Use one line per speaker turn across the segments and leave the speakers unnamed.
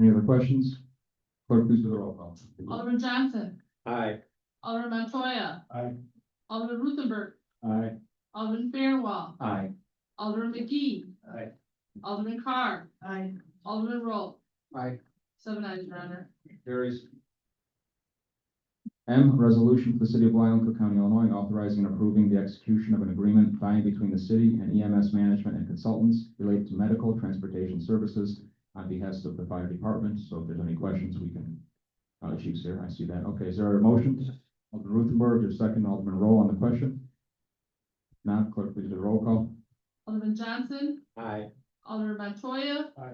Any other questions? Clerk, please do the roll call.
Alderman Johnson,
Aye.
Alderman Montoya,
Aye.
Alderman Ruthenberg,
Aye.
Alderman Fairwell,
Aye.
Alderman McGee,
Aye.
Alderman Carr,
Aye.
Alderman Roll,
Aye.
seven eyes, your honor.
Carries.
M, resolution for the city of Blue Island, Cook County, Illinois, authorizing and approving the execution of an agreement by and between the city and EMS management and consultants related to medical transportation services on behest of the fire department. So if there's any questions, we can, uh, Chief's here, I see that. Okay, is there a motion? Alderman Ruthenberg, your second, Alderman Roll on the question? Now, clerk, please do the roll call.
Alderman Johnson,
Aye.
Alderman Montoya,
Aye.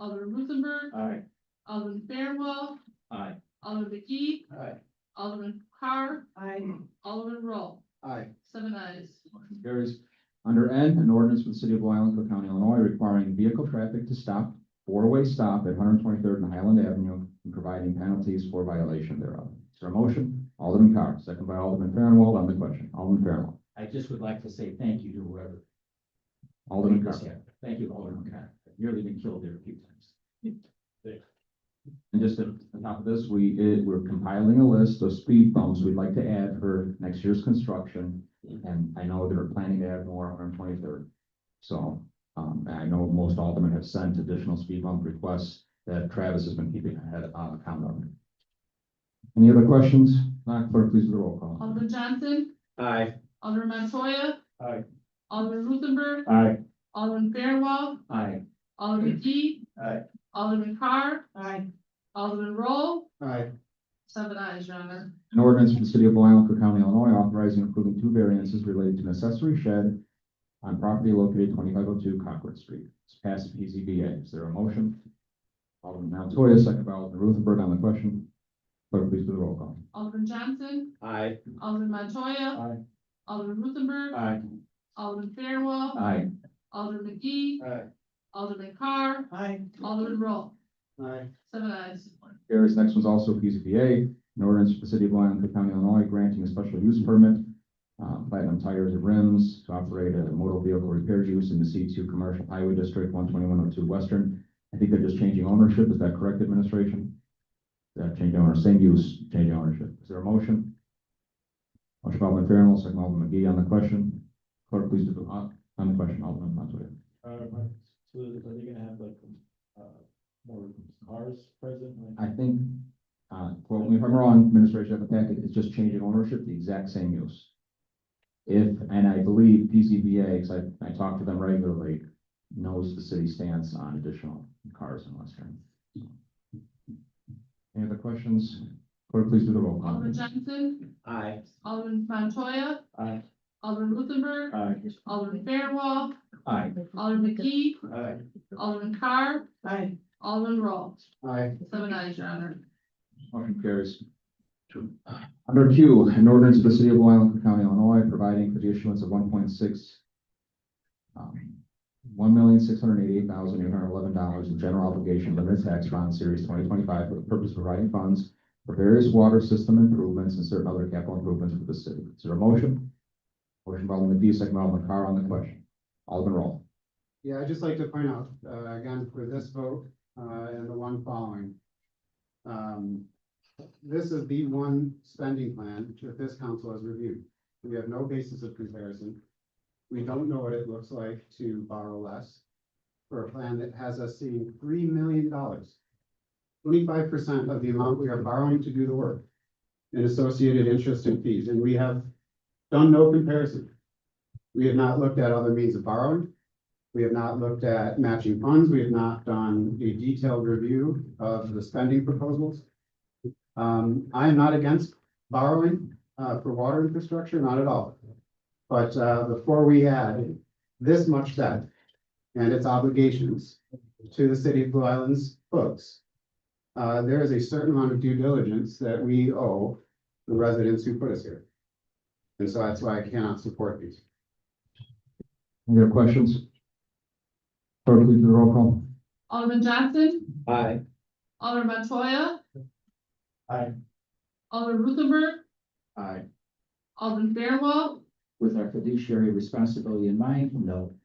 Alderman Ruthenberg,
Aye.
Alderman Fairwell,
Aye.
Alderman McGee,
Aye.
Alderman Carr,
Aye.
Alderman Roll,
Aye.
seven eyes.
Motion carries. Under N, an ordinance for the city of Blue Island, Cook County, Illinois, requiring vehicle traffic to stop, four-way stop at one hundred twenty-third and Highland Avenue, and providing penalties for violation thereof. Is there a motion? Alderman Carr, second by Alderman Fairnwell on the question. Alderman Fairnwell.
I just would like to say thank you to whoever.
Alderman
made
Carr.
this happen. Thank you, Alderman Carr. Nearly been killed there a few times.
And just on top of this, we, it- we're compiling a list of speed bumps we'd like to add for next year's construction. And I know they're planning to add more on our twenty-third. So, um, and I know most aldermen have sent additional speed bump requests that Travis has been keeping ahead, uh, account of. Any other questions? Madam Clerk, please do the roll call.
Alderman Johnson,
Aye.
Alderman Montoya,
Aye.
Alderman Ruthenberg,
Aye.
Alderman Fairwell,
Aye.
Alderman McGee,
Aye.
Alderman Carr,
Aye.
Alderman Roll,
Aye.
Seven eyes, your honor.
An ordinance for the city of Blue Island, Cook County, Illinois, authorizing and approving two variances related to an accessory shed on property located twenty-five oh two Concord Street. It's passed PZBA. Is there a motion? Alderman Montoya, second by Alderman Ruthenberg on the question. Clerk, please do the roll call.
Alderman Johnson,
Aye.
Alderman Montoya,
Aye.
Alderman Ruthenberg,
Aye.
Alderman Fairwell,
Aye.
Alderman McGee,
Aye.
Alderman Carr,
Aye.
Alderman Roll,
Aye.
seven eyes.
Carries. Next one's also PZBA, an ordinance for the city of Blue Island, Cook County, Illinois, granting a special use permit, uh, platinum tires and rims to operate a motor vehicle repair use in the C two Commercial Highway District, one twenty-one oh two Western. I think they're just changing ownership. Is that correct, administration? That change owner, same use, change ownership. Is there a motion? Motion by Alderman Fairwell, second by Alderman McGee on the question. Clerk, please do the, uh, on the question, Alderman Montoya.
So are they gonna have like, uh, more cars present?
I think, uh, quote me if I'm wrong, administration of the packet, it's just changing ownership, the exact same use. If, and I believe PCBA, because I, I talk to them regularly, knows the city stance on additional cars in Western. Any other questions? Clerk, please do the roll call.
Alderman Johnson,
Aye.
Alderman Montoya,
Aye.
Alderman Ruthenberg,
Aye.
Alderman Fairwell,
Aye.
Alderman McGee,
Aye.
Alderman Carr,
Aye.
Alderman Roll,
Aye.
seven eyes, your honor.
Motion carries. Under Q, an ordinance of the city of Blue Island, Cook County, Illinois, providing for the issuance of one point six um, one million, six hundred eighty-eight thousand, eight hundred eleven dollars in general obligation limited tax bond series twenty twenty-five for the purpose of providing funds for various water system improvements and certain other capital improvements for the city. Is there a motion? Motion by Alderman D, second by Alderman Carr on the question. Alderman Roll.
Yeah, I'd just like to point out, uh, again, for this vote, uh, and the one following. Um, this is the one spending plan that this council has reviewed. We have no basis of comparison. We don't know what it looks like to borrow less for a plan that has us seeing three million dollars. Twenty-five percent of the amount we are borrowing to do the work and associated interest and fees, and we have done no comparison. We have not looked at other means of borrowing. We have not looked at matching funds. We have not done a detailed review of the spending proposals. Um, I am not against borrowing, uh, for water infrastructure, not at all. But, uh, before we add this much debt and its obligations to the city of Blue Island's books, uh, there is a certain amount of due diligence that we owe the residents who put us here. And so that's why I cannot support these.
Any other questions? Clerk, please do the roll call.
Alderman Johnson,
Aye.
Alderman Montoya.
Aye.
Alderman Ruthenberg,
Aye.
Alderman Fairwell,
With our fiduciary responsibility in mind, no.